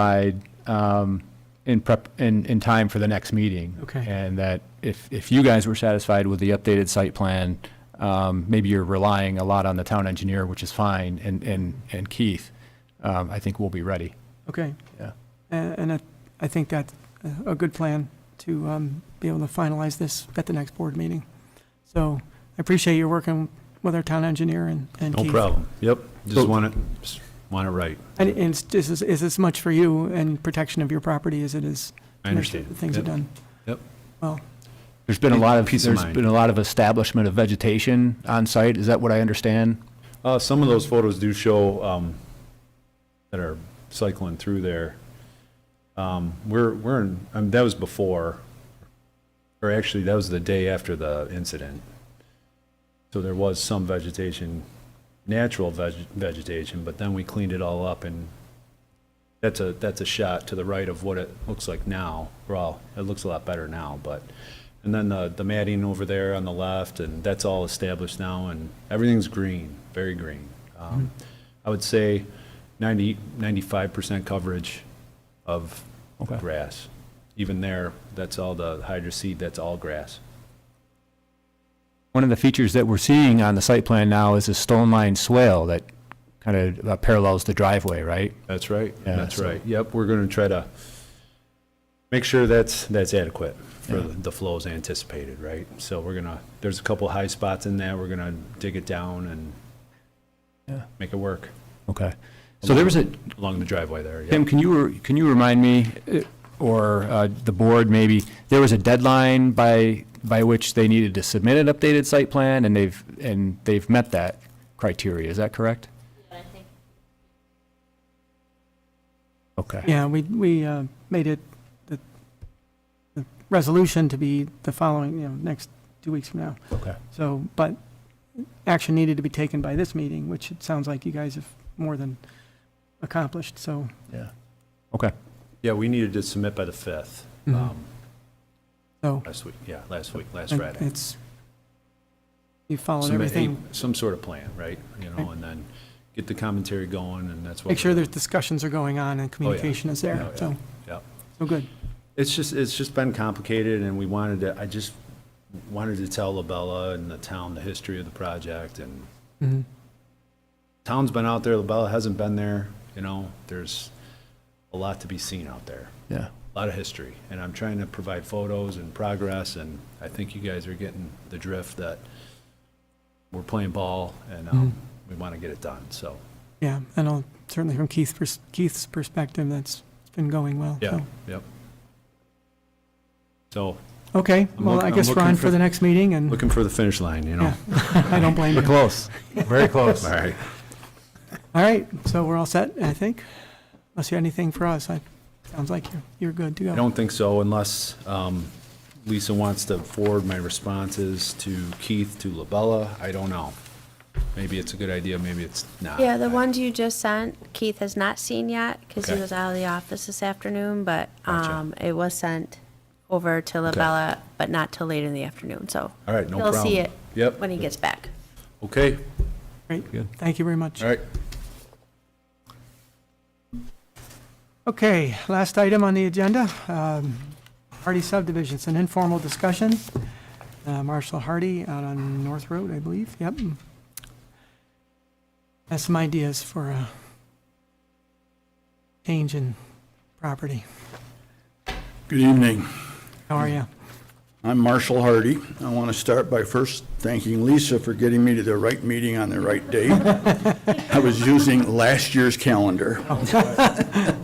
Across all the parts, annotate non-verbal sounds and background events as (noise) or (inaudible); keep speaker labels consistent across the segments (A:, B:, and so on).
A: side um, in prep, in, in time for the next meeting.
B: Okay.
A: And that if, if you guys were satisfied with the updated site plan, um, maybe you're relying a lot on the town engineer, which is fine, and, and, and Keith, um, I think we'll be ready.
B: Okay.
A: Yeah.
B: A- And I- I think that's a- a good plan to um, be able to finalize this at the next board meeting. So I appreciate you working with our town engineer and and
C: No
B: Keith.
C: problem. Yep,
A: So-
C: just want it, just want it right.
B: And and it's just as- is as much for you and protection of your property as it is.
C: I
B: to make sure
C: understand.
B: that Things are
C: Yep.
B: done.
C: Yep.
B: Well,
A: There's been a lot of,
C: Peace of
A: there's
C: mind.
A: been a lot of establishment of vegetation on site, is that what I understand?
C: Uh, some of those photos do show, um, that are cycling through there. Um, we're, we're in, um, that was before, or actually, that was the day after the incident. So there was some vegetation, natural veg- vegetation, but then we cleaned it all up and that's a, that's a shot to the right of what it looks like now. Well, it looks a lot better now, but, and then the, the matting over there on the left, and that's all established now, and everything's green, very green. Um, I would say 90, 95% coverage of
A: Okay.
C: grass. Even there, that's all the hydro seed, that's all grass.
A: One of the features that we're seeing on the site plan now is a stone lined swale that kind of uh, parallels the driveway, right?
C: That's right.
A: Yeah,
C: That's
A: so-
C: right. Yep, we're going to try to make sure that's, that's adequate for
A: Yeah.
C: the flows anticipated, right? So we're going to, there's a couple high spots in there. We're going to dig it down and
A: Yeah.
C: make it work
A: Okay. So there was a,
C: along the driveway there. yeah.
A: Tim, can you, can you remind me, eh, or uh, the board maybe, there was a deadline by, by which they needed to submit an updated site plan, and they've, and they've met that criteria, is that correct?
D: But I think
A: Okay,
B: yeah, we we uh, made it, the the resolution to be the following, you know, next two weeks from now.
A: okay.
B: So, but action needed to be taken by this meeting, which it sounds like you guys have more than accomplished, so.
A: Yeah. Okay,
C: Yeah, we needed to submit by the 5th,
A: Mm-hmm.
C: um,
B: So,
C: last week, yeah, last week, last Friday.
B: it's, you followed
C: Submit a-
B: everything.
C: Some sort of plan, right? You know, and then get the commentary going and that's what.
B: Make sure
C: we're-
B: there's discussions are going on and communication is
C: Oh,
B: there,
C: yeah.
B: so,
C: Yep.
B: so good.
C: It's just, it's just been complicated, and we wanted to, I just wanted to tell Labella and the town the history of the project, and town's been out there, Labella hasn't been there, you know, there's a lot to be seen out there,
A: yeah.
C: a lot of history, and I'm trying to provide photos and progress, and I think you guys are getting the drift that we're playing ball, and um, we want to get it done, so,
B: Yeah, and I'll, certainly from Keith's, pers- Keith's perspective, that's, it's been going well,
C: yeah,
B: so.
C: yep. So,
B: Okay,
C: I'm
B: well,
C: look-
B: I
C: I'm
B: guess we're
C: looking
B: on
C: for
B: for the next meeting and,
C: looking for the finish line, you know?
B: yeah, (laughs) I don't blame
C: (laughs)
B: you.
A: Close, very close.
C: All right.
B: All right, so we're all set, I think. Unless you have anything for us, I, sounds like you're, you're good to go.
C: I don't think so unless um, Lisa wants to forward my responses to Keith, to Labella. I don't know. Maybe it's a good idea, maybe it's not.
D: Yeah, the ones you just sent, Keith has not seen yet because he
C: Okay.
D: was out of the office this afternoon, but
C: Gotcha.
D: um, it was sent over to Labella, but not till late in the afternoon, so.
C: All right, no
D: He'll see
C: problem.
D: it.
C: Yep.
D: When he gets back.
C: Okay,
B: Great,
A: Good.
B: thank you very much.
C: all right.
B: Okay, last item on the agenda, um, Hardy subdivision, it's an informal discussion. Uh, Marshall Hardy out on North Road, I believe, yep. Has some ideas for a change in property.
E: Good evening.
B: How
C: Hmm.
B: are you?
E: I'm Marshall Hardy. I want to start by first thanking Lisa for getting me to the right meeting on the right day. I was using last year's calendar. (laughs)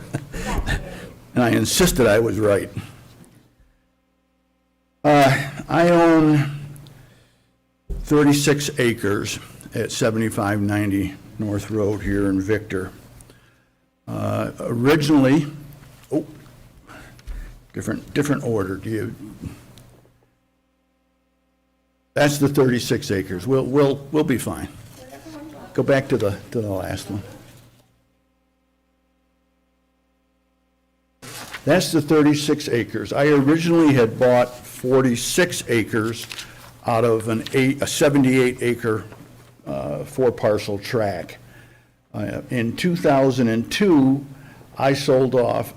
E: And I insisted I was right. Uh, I own 36 acres at 7590 North Road here in Victor. Uh, Originally, oh, different, different order. Do you, that's the 36 acres. We'll, we'll, we'll be fine. Go back to the, to the last one. That's the 36 acres. I originally had bought 46 acres out of an eight, a 78 acre, uh, four parcel tract. Uh, In 2002, I sold off